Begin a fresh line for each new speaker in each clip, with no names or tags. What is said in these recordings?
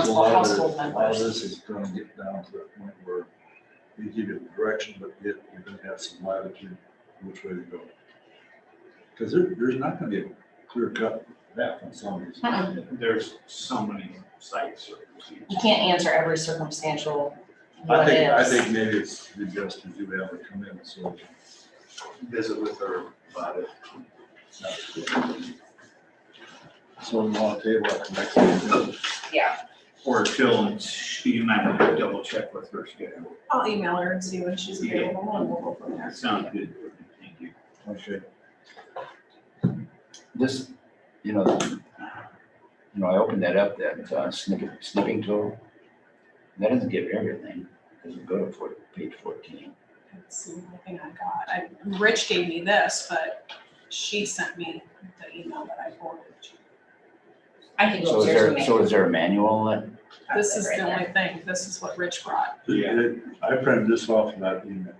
a
household,
lot of this-
household
A lot of
members.
this is gonna get down to that point where we give you the direction, but yet you're gonna have some latitude which way to go. Cause there, there's not gonna be a clear cut map on some of these.
Uh-uh.
Mm-mm.
There's so many sites. or procedures.
You can't answer every circumstantial
I
what
think, I
ifs.
think maybe it's the best to do have it come in, so.
Visit with her about it.
So we want to table it next meeting.
Yeah,
Or till she might have to double check with her schedule.
I'll email her and see when she's available and we'll go from there.
That sounds good. Thank you.
Okay.
This, you know, you know, I opened that up, that uh, snipping, snipping tool. That doesn't give everything, doesn't go to four, page fourteen.
That's the only thing I got. I, Rich gave me this, but she sent me the email that I forwarded. to you.
I think
So
she's
is
here
there,
me.
so is there a manual that,
This is the only thing, this is what Rich brought.
Yeah.
I printed this off in that email.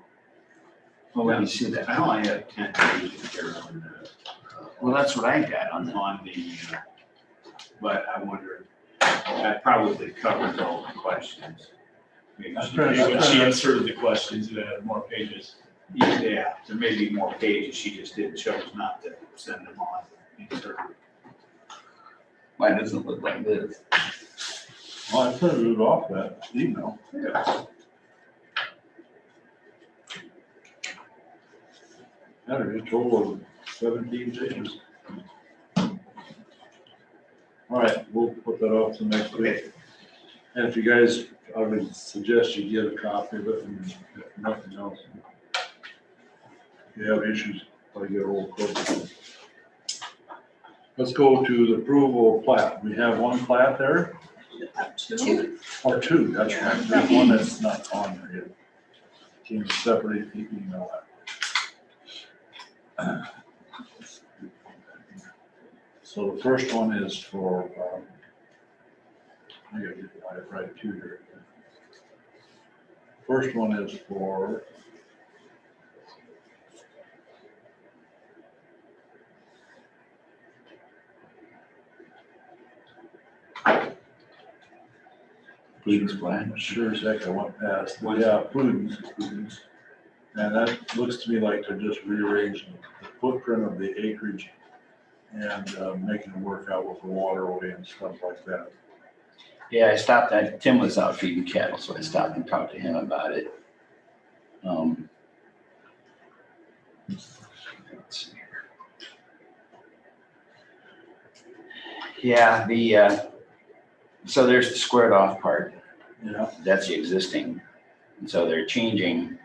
oh, let me see that.
I only have ten pages here on the, uh,
Well, that's what I got on
on,
the,
on the, uh, but I wonder, that probably covers all the questions. Maybe
I'm
she-
trying-
maybe
I'm
when
trying-
she
answered the questions, it had more pages.
Yeah, there may be more pages, she just did, chose not to send them on.
mine doesn't look like this.
Well, I printed it off that email. Had a total of seventeen pages. All right, we'll put that off to next week. And if you guys, I would suggest you get a copy of it and if nothing else. If you have issues, I get a roll call. Let's go to the approval of plat. We have one plat there.
Up to-
Two.
Or two, that's right, there's one that's not on there yet. Can you separate, E you can know that. So the first one is for, um, I gotta get the right two here. First one is for
Please explain.
Sure as heck, I went past,
One.
yeah, Prudence, Prudence. And that looks to me like they're just rearranging the footprint of the acreage and uh, making it work out with the waterway and stuff like that.
Yeah, I stopped, I, Tim was out feeding cattle, so I stopped and talked to him about it. Um. let's see here. Yeah, the, uh, so there's the squared off part,
Yeah,
that's the existing, and so they're changing.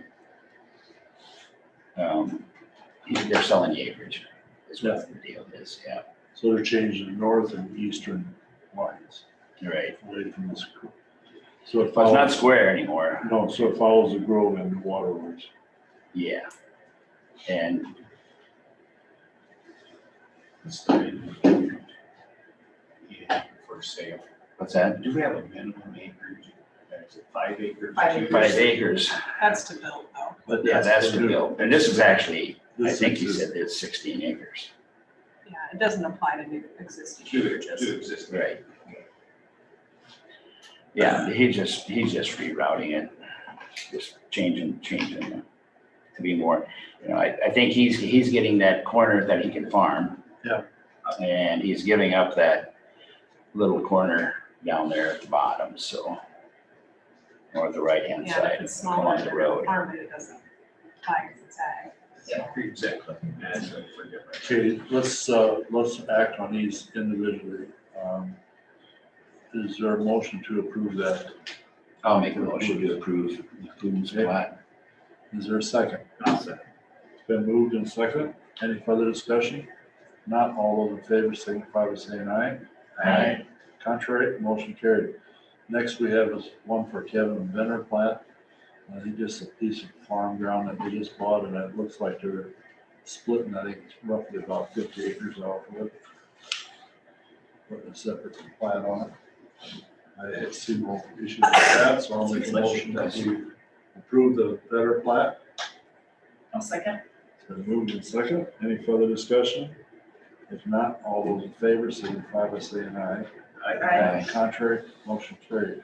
Um, they're selling the acreage, is what the deal is, yeah,
so they're changing the north and eastern lines
you're right,
away from this. So it
but it's not
follows,
square anymore.
no, so it follows the grove and the waterways.
Yeah. And
It's the minimum. Yeah, For sale.
what's that?
Do we have a minimum acreage? Is it five acres?
Five
Two
Five acres.
That's to build though.
But
Yeah, that's the deal. And this is actually, I
This
think you
is-
said it's sixteen acres.
Yeah, it doesn't apply to new existing
Two,
changes.
two existing.
Right. Yeah, he just, he's just rerouting it, just changing, changing it to be more, you know, I, I think he's, he's getting that corner that he can farm.
Yeah.
And he's giving up that little corner down there at the bottom, so. Or the right-hand
Yeah,
side
if it's
along
smaller,
the road.
farm it, it doesn't apply because it's ag.
Yeah, Exactly. That's what we're doing.
Okay, let's, uh, let's act on these individually. Um, Is there a motion to approve that?
I'll make a motion to approve Boone's plat.
Is there a second?
I'll say.
Been moved and second. Any further discussion? Not all those in favor signify by saying aye.
Aye.
Contrary, motion carried. Next, we have is one for Kevin Benner plat. Uh, he just a piece of farm ground that they just bought and it looks like they're splitting, I think it's roughly about fifty acres off of it. Putting a separate plat on it. I had seen no issues with that, so I'll make a motion that we approve the Benner plat.
I'll second.
It's been moved in second. Any further discussion? If not, all those in favor signify by saying aye.
I-
Aye.
Contrary, motion carried.